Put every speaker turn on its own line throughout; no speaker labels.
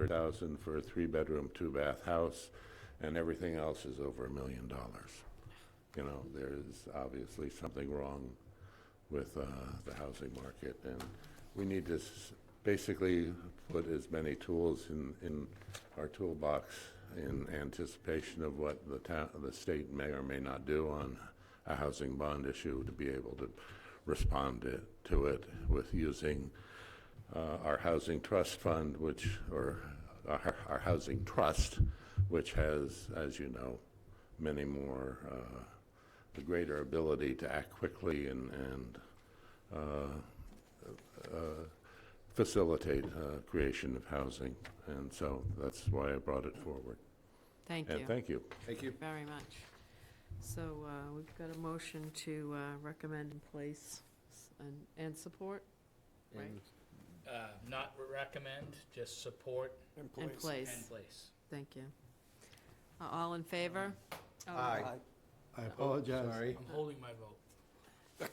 700,000 for a three-bedroom, two-bath house, and everything else is over a million dollars. You know, there is obviously something wrong with uh, the housing market, and we need to s- basically put as many tools in, in our toolbox in anticipation of what the town, the state may or may not do on a housing bond issue to be able to respond to- to it with using uh, our housing trust fund, which, or our, our housing trust, which has, as you know, many more, uh, the greater ability to act quickly and, and uh, uh, facilitate uh, creation of housing. And so that's why I brought it forward.
Thank
And
you
thank you.
Thank you.
very much. So uh, we've got a motion to uh, recommend and place s- and- and support Right.
And-
Uh, Not recommend, just support
and
and
place.
place.
Thank you. Uh, All in favor? Oh,
Aye.
I apologize.
Sorry.
I'm holding my vote.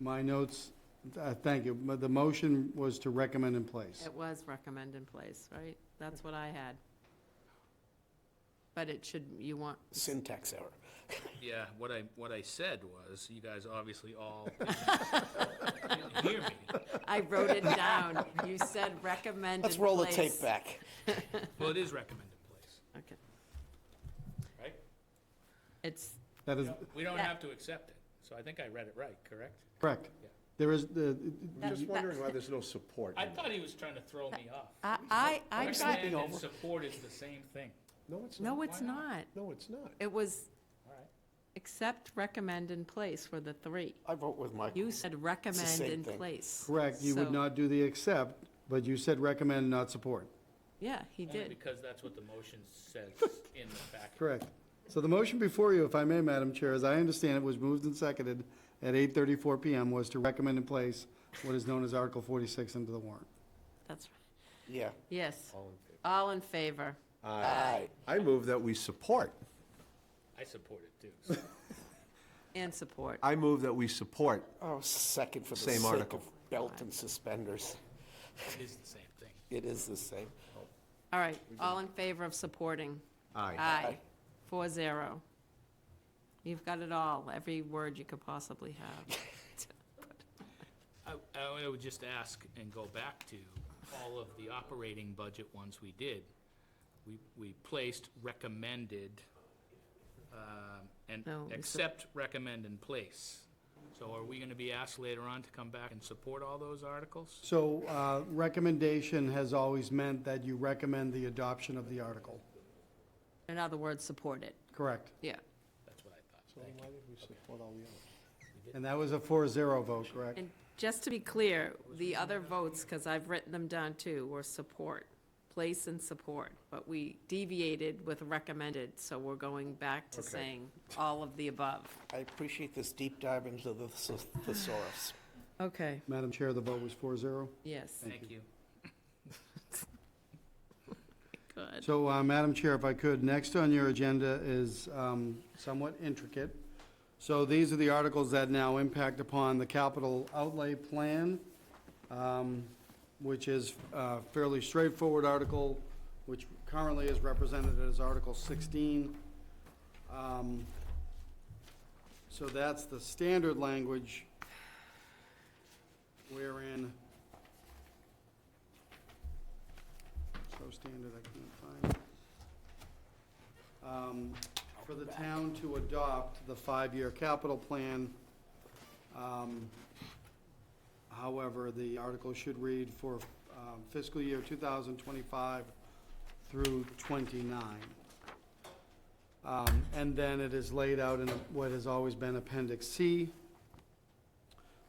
My notes, uh, thank you, but the motion was to recommend in place.
It was recommend and place, right? That's what I had. But it should, you want,
syntax error.
Yeah, what I, what I said was, you guys obviously all didn't hear me.
I wrote it down. You said recommend and place.
Let's roll the tape back.
Well, it is recommended place,
Okay.
right?
It's,
That is
We don't
Yeah.
have to accept it, so I think I read it right, correct?
correct.
Yeah.
There is, the.
I'm just
that-
wondering why there's no support.
I
in it.
thought he was trying to throw me off.
I, I, I got,
Recommend and
over.
support is the same thing.
No, it's not.
no, it's not.
No, it's not.
It was
All right.
accept, recommend, and place were the three.
I vote with Michael.
You said recommend
same
and
thing.
place.
correct, you would
So-
not do the accept, but you said recommend, not support.
Yeah, he
Only
did.
because that's what the motion says in the packet.
Correct. So the motion before you, if I may, Madam Chair, as I understand it, was moved and seconded at 8:34 PM, was to recommend in place what is known as Article 46 into the warrant.
That's right.
Yeah.
Yes. All in favor.
Aye.
I move that we support.
I support it too, so.
And support.
I move that we support.
Oh, second for the
Same
sake
article.
of belt and suspenders.
It is the same thing.
It is the same.
All right, all in favor of supporting?
Aye.
Aye. Four zero. You've got it all, every word you could possibly have.
I, I would just ask and go back to all of the operating budget ones we did. We, we placed recommended, um, and
No, we said-
accept, recommend, and place. So are we gonna be asked later on to come back and support all those articles?
So uh, recommendation has always meant that you recommend the adoption of the article.
In other words, support it.
Correct.
Yeah.
That's what I thought.
So why did we support all the others?
And that was a 4-0 vote, correct?
And just to be clear, the other votes, because I've written them down too, were support, place and support. But we deviated with recommended, so we're going back to saying all of the above.
I appreciate this deep dive into the thes- thesaurus.
Okay,
Madam Chair, the vote was 4-0.
yes,
Thank you.
good.
So, uh, Madam Chair, if I could, next on your agenda is um, somewhat intricate. So these are the articles that now impact upon the capital outlay plan, um, which is a fairly straightforward article, which currently is represented as Article 16. Um, So that's the standard language wherein, so standard I can't find. it. Um, For the town to adopt the five-year capital plan. um, However, the article should read for um, fiscal year 2025 through 29. Um, And then it is laid out in what has always been Appendix C.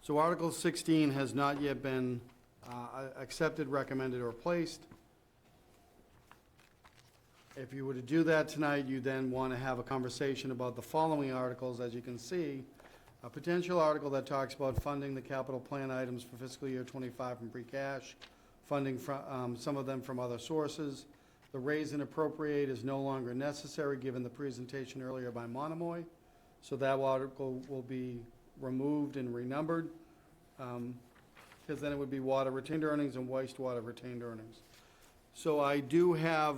So Article 16 has not yet been uh, accepted, recommended, or placed. If you were to do that tonight, you then want to have a conversation about the following articles, as you can see. A potential article that talks about funding the capital plan items for fiscal year '25 from free cash, funding from, some of them from other sources. The raise and appropriate is no longer necessary, given the presentation earlier by Monomoy. So that article will be removed and renumbered, um, because then it would be water retained earnings and wastewater retained earnings. So I do have